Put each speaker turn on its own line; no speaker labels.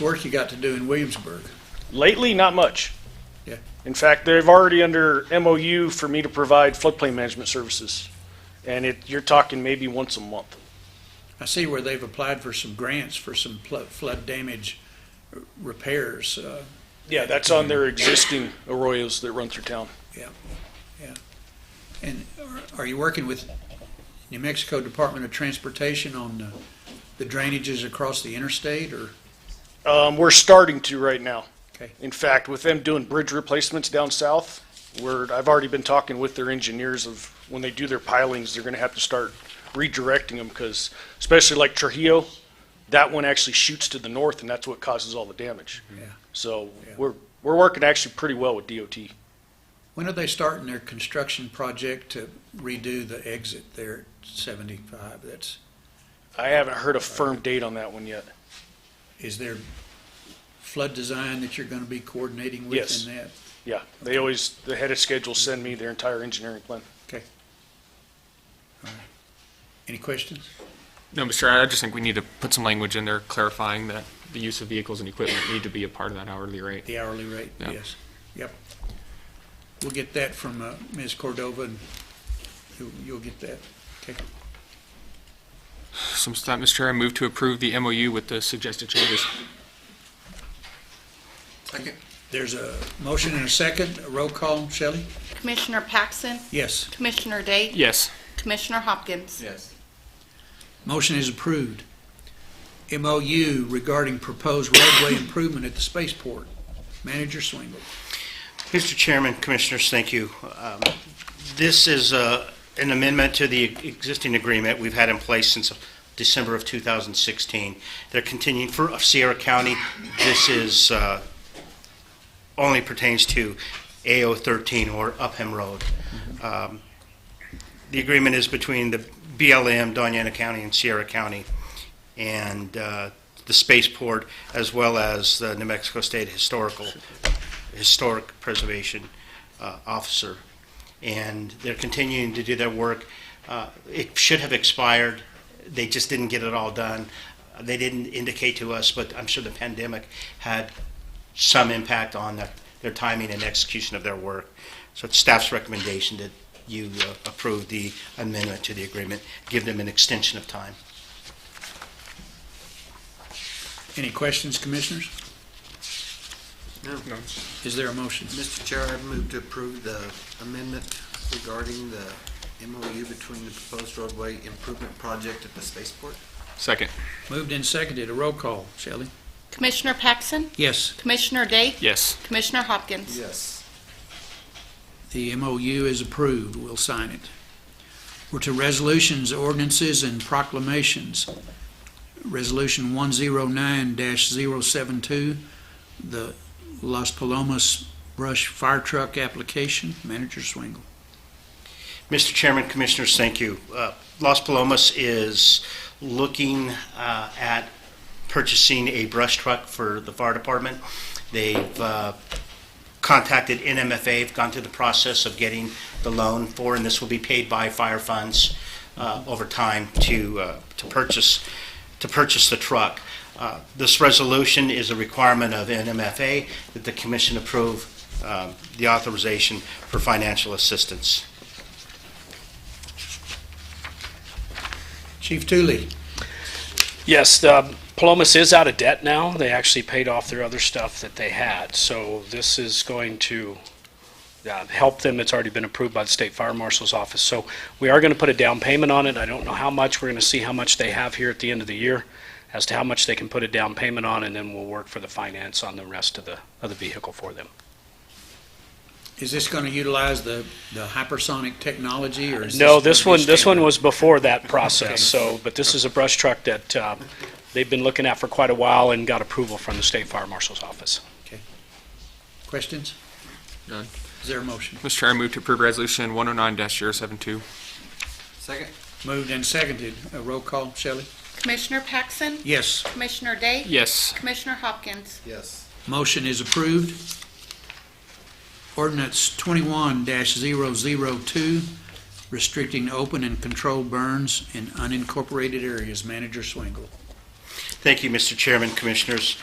work you got to do in Williamsburg?
Lately, not much.
Yeah.
In fact, they've already under MOU for me to provide floodplain management services. And it, you're talking maybe once a month.
I see where they've applied for some grants for some pl- flood damage r- repairs. Uh,
Yeah, that's on their existing arroyos that run through town.
and are, are you working with New Mexico Department of Transportation on uh, the drainages across the interstate or?
Um, we're starting to right now.
Okay.
In fact, with them doing bridge replacements down south, we're, I've already been talking with their engineers of when they do their pilings, they're gonna have to start redirecting them because especially like Trujillo, that one actually shoots to the north and that's what causes all the damage.
Yeah.
So
Yeah.
we're, we're working actually pretty well with DOT.
When are they starting their construction project to redo the exit there at seventy-five? That's,
I haven't heard a firm date on that one yet.
is there flood design that you're gonna be coordinating with
Yes.
in that?
Yeah, they always, the head of schedule send me their entire engineering plan.
Any questions?
No, Mr. Chair, I just think we need to put some language in there clarifying that the use of vehicles and equipment need to be a part of that hourly rate.
The hourly rate,
Yeah.
yes. Yep. We'll get that from uh, Ms. Cordova, and you- you'll get that. Okay.
So, with that, Mr. Chair, I move to approve the MOU with the suggested changes.
There's a motion and a second. A Roll call, Shelley?
Commissioner Paxson,
Yes.
Commissioner Day,
Yes.
Commissioner Hopkins.
Yes.
Motion is approved. MOU regarding proposed roadway improvement at the spaceport. Manager Swingle.
Mr. Chairman, Commissioners, thank you. Um, This is uh, an amendment to the existing agreement we've had in place since December of 2016. They're continuing for Sierra County. This is, uh, only pertains to AO 13 or Upham Road. Um, The agreement is between the BLM, Doñana County, and Sierra County, and uh, the spaceport, as well as the New Mexico State Historical Historic Preservation uh, Officer, and they're continuing to do their work. Uh, It should have expired, they just didn't get it all done. They didn't indicate to us, but I'm sure the pandemic had some impact on their- their timing and execution of their work. So it's staff's recommendation that you uh, approve the amendment to the agreement, give them an extension of time.
Any questions, commissioners?
No.
Is there a motion?
Mr. Chair, I move to approve the amendment regarding the MOU between the proposed roadway improvement project at the spaceport.
Second.
Moved and seconded. A roll call, Shelley?
Commissioner Paxson,
Yes.
Commissioner Day,
Yes.
Commissioner Hopkins.
Yes.
The MOU is approved. We'll sign it. We're to resolutions, ordinances, and proclamations. Resolution 109-072, the Las Palomas brush fire truck application. Manager Swingle.
Mr. Chairman, Commissioners, thank you. Uh, Las Palomas is looking uh, at purchasing a brush truck for the fire department. They've uh, contacted NMFA, have gone through the process of getting the loan for, and this will be paid by fire funds uh, over time to, uh, to purchase, to purchase the truck. Uh, This resolution is a requirement of NMFA that the commission approve um, the authorization for financial assistance.
Chief Tully.
Yes, the um, Palomas is out of debt now. They actually paid off their other stuff that they had. So this is going to uh, help them. It's already been approved by the State Fire Marshal's office. So we are going to put a down payment on it. I don't know how much. We're going to see how much they have here at the end of the year as to how much they can put a down payment on, and then we'll work for the finance on the rest of the, of the vehicle for them.
Is this going to utilize the, the hypersonic technology or is
No,
gonna
this
be
one, this one
standard?
was before that process, so, but this is a brush truck that uh, they've been looking at for quite a while and got approval from the State Fire Marshal's office.
Questions?
None.
Is there a motion?
Mr. Chair, I move to approve resolution 109-072.
Second?
Moved and seconded. A roll call, Shelley?
Commissioner Paxson,
Yes.
Commissioner Day,
Yes.
Commissioner Hopkins.
Yes.
Motion is approved. Ordinance twenty-one 2 restricting open and controlled burns in unincorporated areas. Manager Swingle.
Thank you, Mr. Chairman, Commissioners.